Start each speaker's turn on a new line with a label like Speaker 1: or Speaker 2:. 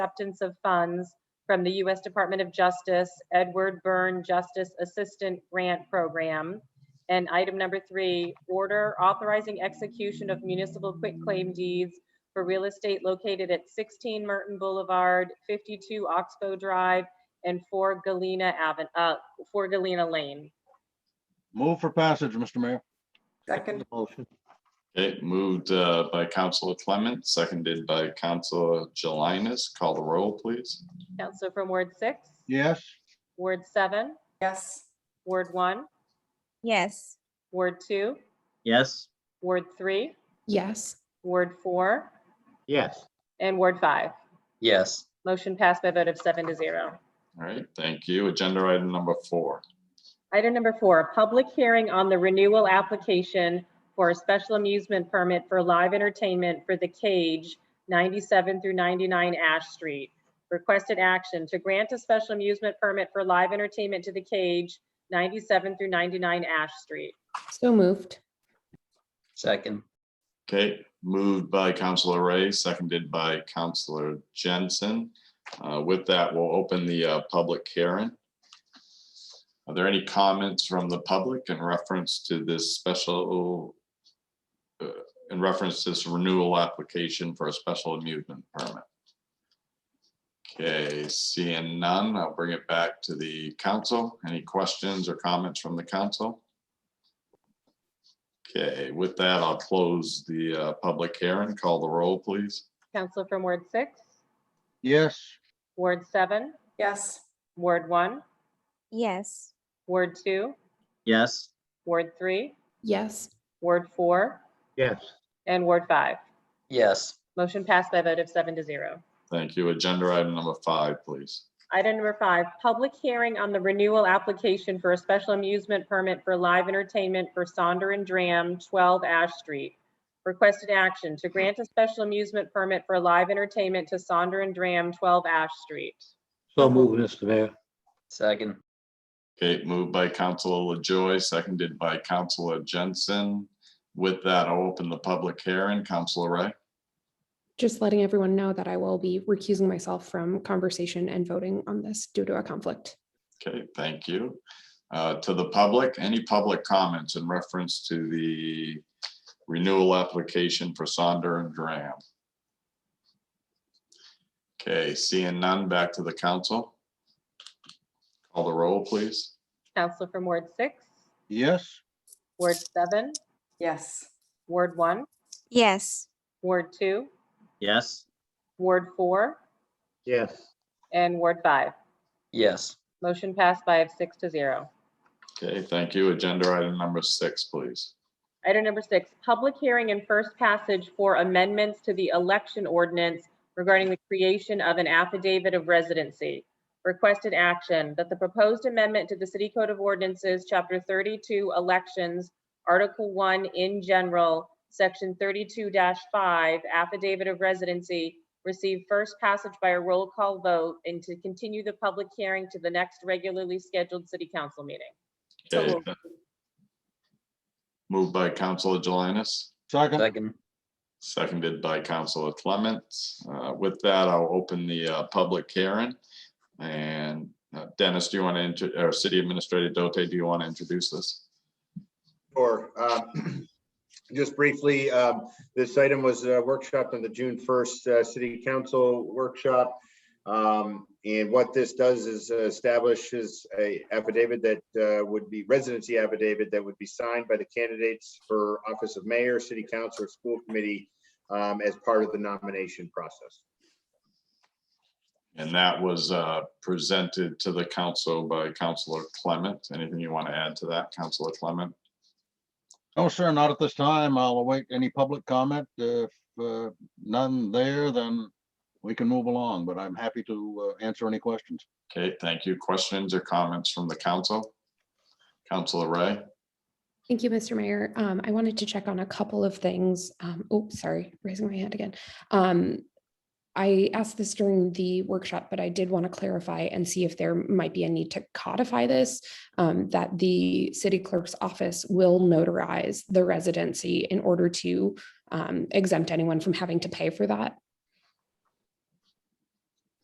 Speaker 1: acceptance of funds from the U.S. Department of Justice Edward Byrne Justice Assistant Grant Program. And item number three, order authorizing execution of municipal quitclaim deeds for real estate located at 16 Merton Boulevard, 52 Oxbow Drive, and 4 Galena Avenue, uh, 4 Galena Lane.
Speaker 2: Move for passage, Mr. Mayor.
Speaker 3: Second,
Speaker 4: the motion.
Speaker 5: Okay, moved uh, by Counselor Clement, seconded by Counselor Jelinas. Call the roll, please.
Speaker 1: Counselor from Ward 6,
Speaker 2: Yes,
Speaker 1: Ward 7,
Speaker 3: yes,
Speaker 1: Ward 1,
Speaker 6: yes,
Speaker 1: Ward 2,
Speaker 4: Yes.
Speaker 1: Ward 3,
Speaker 7: yes,
Speaker 1: Ward 4,
Speaker 4: Yes.
Speaker 1: and Ward 5.
Speaker 4: Yes.
Speaker 1: Motion passed by a vote of seven to zero.
Speaker 5: All right, thank you. Agenda item number four.
Speaker 1: Item number four, public hearing on the renewal application for a special amusement permit for live entertainment for The Cage, 97 through 99 Ash Street. Requested action to grant a special amusement permit for live entertainment to The Cage, 97 through 99 Ash Street.
Speaker 7: so moved,
Speaker 4: Second,
Speaker 5: Okay, moved by Counselor Ray, seconded by Counselor Jensen. Uh, With that, we'll open the uh, public hearing. Are there any comments from the public in reference to this special, uh, in reference to this renewal application for a special amusement permit? Okay, seeing none, I'll bring it back to the council. Any questions or comments from the council? Okay, with that, I'll close the uh, public hearing. Call the roll, please.
Speaker 1: Counselor from Ward 6,
Speaker 2: yes,
Speaker 1: Ward 7,
Speaker 3: yes,
Speaker 1: Ward 1,
Speaker 6: yes,
Speaker 1: Ward 2,
Speaker 8: Yes.
Speaker 1: Ward 3,
Speaker 7: yes,
Speaker 1: Ward 4,
Speaker 4: yes.
Speaker 1: and Ward 5.
Speaker 4: Yes,
Speaker 1: Motion passed by a vote of seven to zero.
Speaker 5: Thank you. Agenda item number five, please.
Speaker 1: Item number five, public hearing on the renewal application for a special amusement permit for live entertainment for Sonder and Dram, 12 Ash Street. Requested action to grant a special amusement permit for live entertainment to Sonder and Dram, 12 Ash Street.
Speaker 9: So move, Mr. Mayor.
Speaker 4: second,
Speaker 5: Okay, moved by Counselor LaJoy, seconded by Counselor Jensen. With that, I'll open the public hearing. Counselor Ray.
Speaker 7: just letting everyone know that I will be recusing myself from conversation and voting on this due to a conflict.
Speaker 5: Okay, thank you. Uh, To the public, any public comments in reference to the renewal application for Sonder and Dram? Okay, seeing none, back to the council. Call the roll, please.
Speaker 1: Counselor from Ward 6,
Speaker 2: yes,
Speaker 1: Ward 7,
Speaker 3: yes,
Speaker 1: Ward 1,
Speaker 6: yes,
Speaker 1: Ward 2,
Speaker 8: Yes.
Speaker 1: Ward 4,
Speaker 9: Yes.
Speaker 1: and Ward 5.
Speaker 4: yes,
Speaker 1: Motion passed by six to zero.
Speaker 5: Okay, thank you. Agenda item number six, please.
Speaker 1: Item number six, public hearing and first passage for amendments to the election ordinance regarding the creation of an affidavit of residency. Requested action that the proposed amendment to the City Code of Ordinances, Chapter 32, Elections, Article 1 in general, Section 32-5, Affidavit of Residency, receive first passage by a roll call vote and to continue the public hearing to the next regularly scheduled city council meeting.
Speaker 3: So
Speaker 5: Okay,
Speaker 3: moved.
Speaker 5: th- Moved by Counselor Jelinas,
Speaker 2: second,
Speaker 4: second,
Speaker 5: seconded by Counselor Clement. Uh, With that, I'll open the uh, public hearing. And uh, Dennis, do you want to, inter- or City Administrator Dote, do you want to introduce this?
Speaker 10: Sure. Uh, Just briefly, um, this item was uh, workshopped on the June 1st uh, City Council workshop. Um, And what this does is establishes a affidavit that uh, would be residency affidavit that would be signed by the candidates for office of mayor, city council, or school committee um, as part of the nomination process.
Speaker 5: And that was uh, presented to the council by Counselor Clement. Anything you want to add to that, Counselor Clement?
Speaker 2: no, sir, not at this time. I'll await any public comment. If uh, none there, then we can move along, but I'm happy to uh, answer any questions.
Speaker 5: Okay, thank you. Questions or comments from the council? Counselor Ray?
Speaker 7: Thank you, Mr. Mayor. Um, I wanted to check on a couple of things. Um, oh, sorry, raising my hand again. Um, I asked this during the workshop, but I did want to clarify and see if there might be a need to codify this. um, that the city clerk's office will notarize the residency in order to um, exempt anyone from having to pay for that